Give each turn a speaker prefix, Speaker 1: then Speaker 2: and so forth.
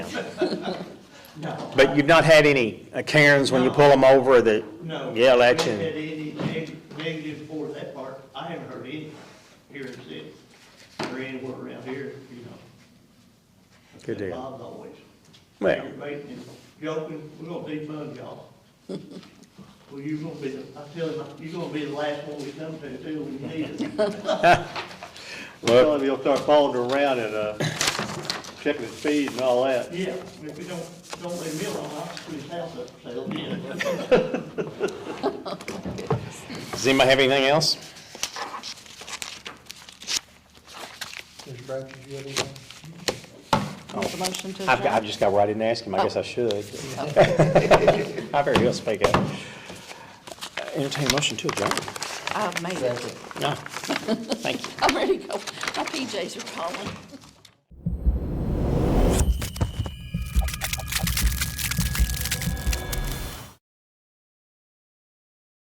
Speaker 1: No.
Speaker 2: But you've not had any uh, Karens when you pull them over that
Speaker 1: No.
Speaker 2: yell
Speaker 1: I
Speaker 2: at
Speaker 1: haven't had
Speaker 2: you?
Speaker 1: any neg- negative for that part. I haven't heard any here in the city or anywhere around here, you know.
Speaker 2: Good
Speaker 1: And
Speaker 2: deal.
Speaker 1: Bob's always.
Speaker 2: Well.
Speaker 1: aggravating and Joking, we're gonna defund y'all. Well, you're gonna be, the- I tell him, you're gonna be the last one we come to till we need it.
Speaker 2: Well,
Speaker 3: Tell him he'll start following her around and, uh, checking his speed and all that.
Speaker 1: Yeah, if we don't, don't leave me alone, I'll screw his house up, so it'll be in.
Speaker 2: does anybody have anything else?
Speaker 4: Mr. Bratcher, you have anything?
Speaker 5: Want the motion to
Speaker 2: I've, got- I've
Speaker 5: adjourn?
Speaker 2: just got right in and asked him, I guess I should. I've heard he'll speak up. Entertain a motion to adjourn.
Speaker 5: I've made it.
Speaker 2: No, thank you.
Speaker 5: I'm ready to go. My PJs are calling.